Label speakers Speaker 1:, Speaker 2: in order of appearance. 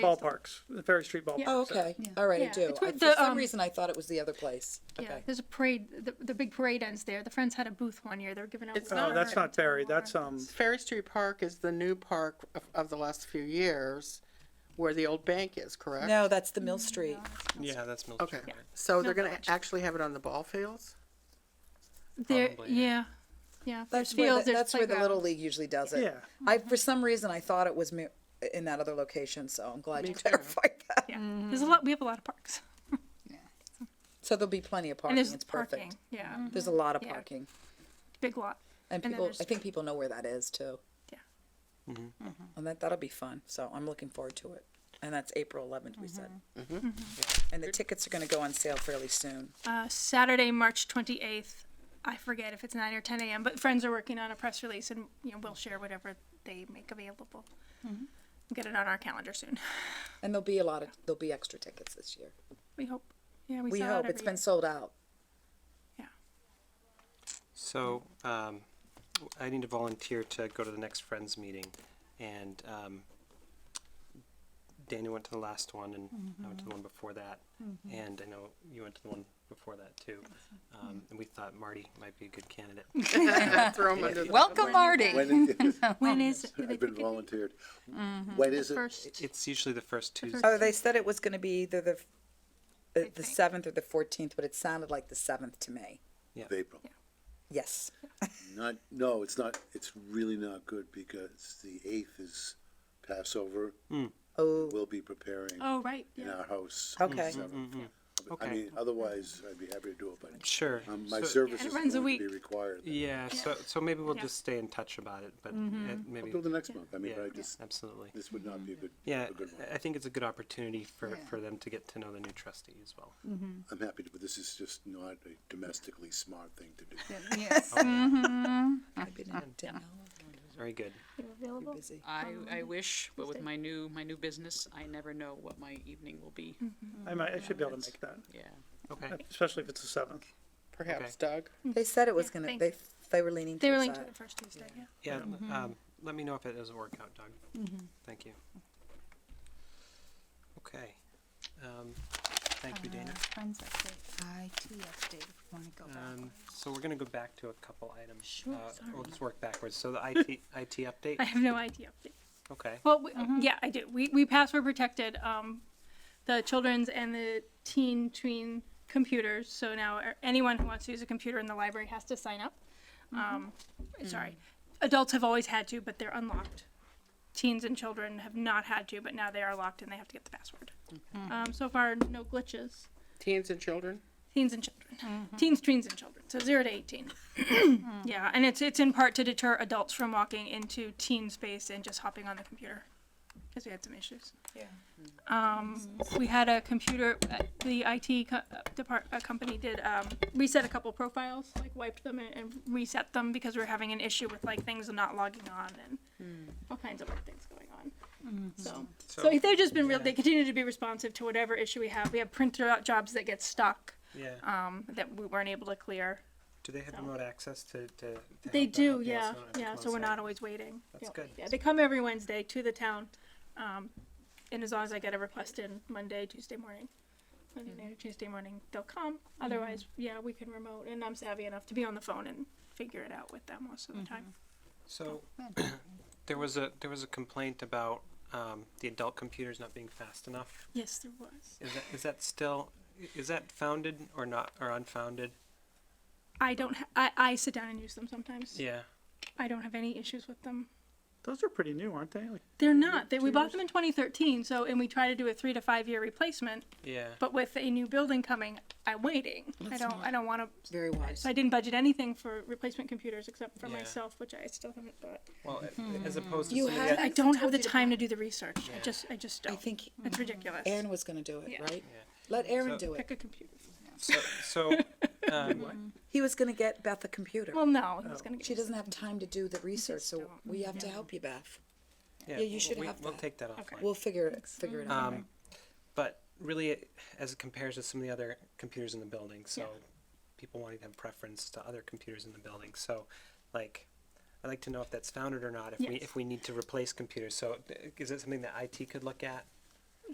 Speaker 1: ballparks, the Ferry Street ballparks. Uh,
Speaker 2: Oh,
Speaker 1: That's-
Speaker 2: okay. All right, I
Speaker 3: Yeah.
Speaker 2: do.
Speaker 3: It's
Speaker 2: I-
Speaker 3: where
Speaker 2: For
Speaker 3: the,
Speaker 2: some
Speaker 3: um,
Speaker 2: reason, I thought it was the other place.
Speaker 3: Yeah,
Speaker 2: Okay.
Speaker 3: there's a parade, the, the big parade ends there. The Friends had a booth one year. They were giving out.
Speaker 4: It's
Speaker 1: No,
Speaker 4: not-
Speaker 1: that's not Ferry, that's, um,
Speaker 4: Ferry Street Park is the new park of, of the last few years where the old bank is, correct?
Speaker 2: No, that's the Mill
Speaker 3: mm,
Speaker 2: Street.
Speaker 5: Yeah, that's Mill
Speaker 4: Okay,
Speaker 5: Street. right?
Speaker 4: so they're
Speaker 3: Mill
Speaker 4: gonna
Speaker 3: Village.
Speaker 4: actually have it on the ball fields?
Speaker 3: There,
Speaker 5: Probably,
Speaker 3: yeah, yeah. There's
Speaker 2: That's where,
Speaker 3: fields,
Speaker 2: the-
Speaker 3: there's
Speaker 2: that's where the Little
Speaker 3: playgrounds.
Speaker 2: League usually does it.
Speaker 1: Yeah.
Speaker 2: I, for some reason, I thought it was mi- in that other location, so I'm glad
Speaker 4: Me
Speaker 2: you
Speaker 4: too.
Speaker 2: clarified that.
Speaker 3: Yeah, there's a lot, we have a lot of parks.
Speaker 2: So there'll be plenty of
Speaker 3: And
Speaker 2: parking.
Speaker 3: there's
Speaker 2: It's
Speaker 3: parking,
Speaker 2: perfect. Mm-hmm.
Speaker 3: yeah,
Speaker 2: There's a lot of
Speaker 3: Yeah.
Speaker 2: parking.
Speaker 3: big lot.
Speaker 2: And
Speaker 3: And then
Speaker 2: people,
Speaker 3: there's-
Speaker 2: I think people know where that is too. Mm-hmm.
Speaker 3: Yeah.
Speaker 2: And that, that'll be fun, so I'm looking forward to it. And that's April eleventh, we said.
Speaker 3: Mm-hmm.
Speaker 2: And the tickets are gonna go on sale fairly soon.
Speaker 3: Uh, Saturday, March twenty-eighth, I forget if it's nine or ten AM, but Friends are working on a press release and, you know, we'll share whatever they make available.
Speaker 2: Mm-hmm.
Speaker 3: Get it on our calendar soon,
Speaker 2: And there'll be a lot of, there'll be extra tickets this year.
Speaker 3: we hope. Yeah, we
Speaker 2: We
Speaker 3: sell out
Speaker 2: hope,
Speaker 3: every
Speaker 2: it's been
Speaker 3: year.
Speaker 2: sold out.
Speaker 3: Yeah.
Speaker 5: So, um, I need to volunteer to go to the next Friends meeting, and, um, Dana went to the last one, and I went to the one before that, and I know you went to the one before that too. Um, and we thought Marty might be a good candidate.
Speaker 4: Throw 'em under the-
Speaker 6: Welcome, Marty.
Speaker 7: When is it?
Speaker 3: When is? do they
Speaker 7: I've been
Speaker 3: pick a date?
Speaker 7: volunteered. When is it?
Speaker 3: First,
Speaker 5: It's usually the first Tuesday.
Speaker 2: Oh, they said it was gonna be either the, the- the
Speaker 3: think.
Speaker 2: seventh or the fourteenth, but it sounded like the seventh to me.
Speaker 7: Of April.
Speaker 2: Yes,
Speaker 7: Not, no, it's not, it's really not good because the eighth is Passover.
Speaker 5: Mm.
Speaker 2: oh,
Speaker 7: We'll be preparing
Speaker 3: oh, right,
Speaker 7: in
Speaker 3: yeah.
Speaker 7: our house.
Speaker 2: Okay.
Speaker 7: So, I
Speaker 5: Mm-hmm. Okay.
Speaker 7: mean, otherwise, I'd be happy to do it, but
Speaker 5: Sure.
Speaker 7: um, my
Speaker 5: So-
Speaker 7: service
Speaker 3: Yeah, it
Speaker 7: is going
Speaker 3: runs a
Speaker 7: to be
Speaker 3: week.
Speaker 7: required. then.
Speaker 5: Yeah, so, so maybe we'll
Speaker 3: Yeah.
Speaker 5: just stay in touch about it, but it- maybe,
Speaker 7: Until the next month. I mean,
Speaker 5: yeah,
Speaker 7: but I just,
Speaker 5: absolutely.
Speaker 7: this would not be a good,
Speaker 5: Yeah,
Speaker 7: a good one.
Speaker 5: I- I think it's a good opportunity for, for them to get to know the new trustee as well.
Speaker 7: I'm happy to, but this is just not a domestically smart thing to do.
Speaker 6: Yes.
Speaker 2: I've been in Denali,
Speaker 5: Very good.
Speaker 2: I'm busy.
Speaker 8: I, I wish, but with my new, my new business, I never know what my evening will be.
Speaker 1: I might, I should be able to make that,
Speaker 8: Yeah.
Speaker 5: Okay.
Speaker 1: especially if it's the seventh.
Speaker 4: Perhaps Doug?
Speaker 2: They said it was
Speaker 3: Yeah,
Speaker 2: gonna,
Speaker 3: thank
Speaker 2: they,
Speaker 3: you.
Speaker 2: they were leaning
Speaker 3: They were
Speaker 2: towards
Speaker 3: linked to
Speaker 2: that.
Speaker 3: the first Tuesday, yeah. Mm-hmm.
Speaker 5: Yeah, um, let me know if it doesn't work out, Doug. Thank you.
Speaker 3: Mm-hmm.
Speaker 5: Okay. Um, thank you,
Speaker 3: Uh-huh.
Speaker 5: Dana.
Speaker 6: Friends update, IT update, if you want to go back.
Speaker 5: Um, so we're gonna go back to a couple items.
Speaker 3: Sure,
Speaker 5: Uh, We'll
Speaker 3: sorry.
Speaker 5: just work backwards. So the IT, IT
Speaker 3: I
Speaker 5: update,
Speaker 3: have no idea.
Speaker 5: okay.
Speaker 3: Well, we, yeah, I do. We, we password protected um, the children's and the teen tween computers. So now er, anyone who wants to use a computer in the library has to sign up. Um, Sorry, adults have always had to, but they're unlocked. Teens and children have not had to, but now they are locked and they have to get the password. Um, so far, no glitches.
Speaker 4: Teens and children?
Speaker 3: teens and children teens tweens and children so 0 to 18 yeah and it's it's in part to deter adults from walking into teen space and just hopping on the computer because we had some issues yeah um, we had a computer uh, the it co- uh, depart, uh, company did um, reset a couple profiles like wiped them and, and reset them because we were having an issue with like things not logging on and all kinds of like things going on so, so,
Speaker 5: So-
Speaker 3: they've just been real. They continue to be responsive to whatever issue we have. We have printer jobs that get stuck
Speaker 5: Yeah.
Speaker 3: um, that we weren't able to clear.
Speaker 5: Do they have remote access to, to? to
Speaker 3: They
Speaker 5: help the help
Speaker 3: do,
Speaker 5: desk
Speaker 3: yeah,
Speaker 5: not have to
Speaker 3: yeah,
Speaker 5: go
Speaker 3: so we're
Speaker 5: outside?
Speaker 3: not always waiting.
Speaker 5: That's
Speaker 3: Yeah.
Speaker 5: good.
Speaker 3: Yeah, they come every Wednesday to the town, um, and as long as I get a request in Monday, Tuesday morning, Monday night or Tuesday morning, they'll come. Otherwise, yeah, we can remote, and I'm savvy enough to be on the phone and figure it out with them most of the time.
Speaker 5: So,
Speaker 3: Oh,
Speaker 5: there was a, there was a complaint about, um, the adult computers not being fast enough.
Speaker 3: Yes, there was.
Speaker 5: Is that, is that still, i- is that founded or not, or unfounded?
Speaker 3: I don't, ha- I, I sit down and use them sometimes.
Speaker 5: Yeah.
Speaker 3: I don't have any issues with them.
Speaker 1: Those are pretty new, aren't they? Like,
Speaker 3: They're not, they, we bought them in twenty thirteen, so, and we try to do a three to five year replacement,
Speaker 5: Yeah.
Speaker 3: But with a new building coming, I'm waiting. I don't, I don't want to,
Speaker 2: Very wise.
Speaker 3: so I didn't budget anything for replacement computers except for
Speaker 5: Yeah.
Speaker 3: myself, which I still haven't bought.
Speaker 5: Well, a- as opposed to
Speaker 2: You
Speaker 5: something
Speaker 2: had-
Speaker 5: that,
Speaker 3: I
Speaker 2: think I
Speaker 3: don't have
Speaker 2: told
Speaker 3: the
Speaker 2: you to
Speaker 3: time
Speaker 2: buy-
Speaker 3: to do the research. I just, I just
Speaker 2: I
Speaker 3: don't.
Speaker 2: think
Speaker 3: It's ridiculous.
Speaker 2: Aaron was gonna do it,
Speaker 3: Yeah.
Speaker 2: right?
Speaker 5: Yeah.
Speaker 2: Let Aaron
Speaker 5: So-
Speaker 2: do it.
Speaker 3: Pick a computer.
Speaker 5: so, so, um,
Speaker 2: He was gonna get Beth a computer.
Speaker 3: Well, no, he's gonna
Speaker 2: She
Speaker 3: get,
Speaker 2: doesn't have time to do the research, so
Speaker 3: don't.
Speaker 2: we have to help you, Beth.
Speaker 5: yeah,
Speaker 2: you should
Speaker 5: we,
Speaker 2: have
Speaker 5: We'll
Speaker 2: that.
Speaker 5: take that offline.
Speaker 2: We'll figure it, figure
Speaker 3: Mm-hmm.
Speaker 2: it out.
Speaker 5: Um, but really, it- as it compares to some of the other computers in the building, so people wanting to have preference to other computers in the building. So, like, I'd like to know if that's founded or not. If we
Speaker 3: Yes.
Speaker 5: if we need to replace computers, so uh, is it something that IT could look at?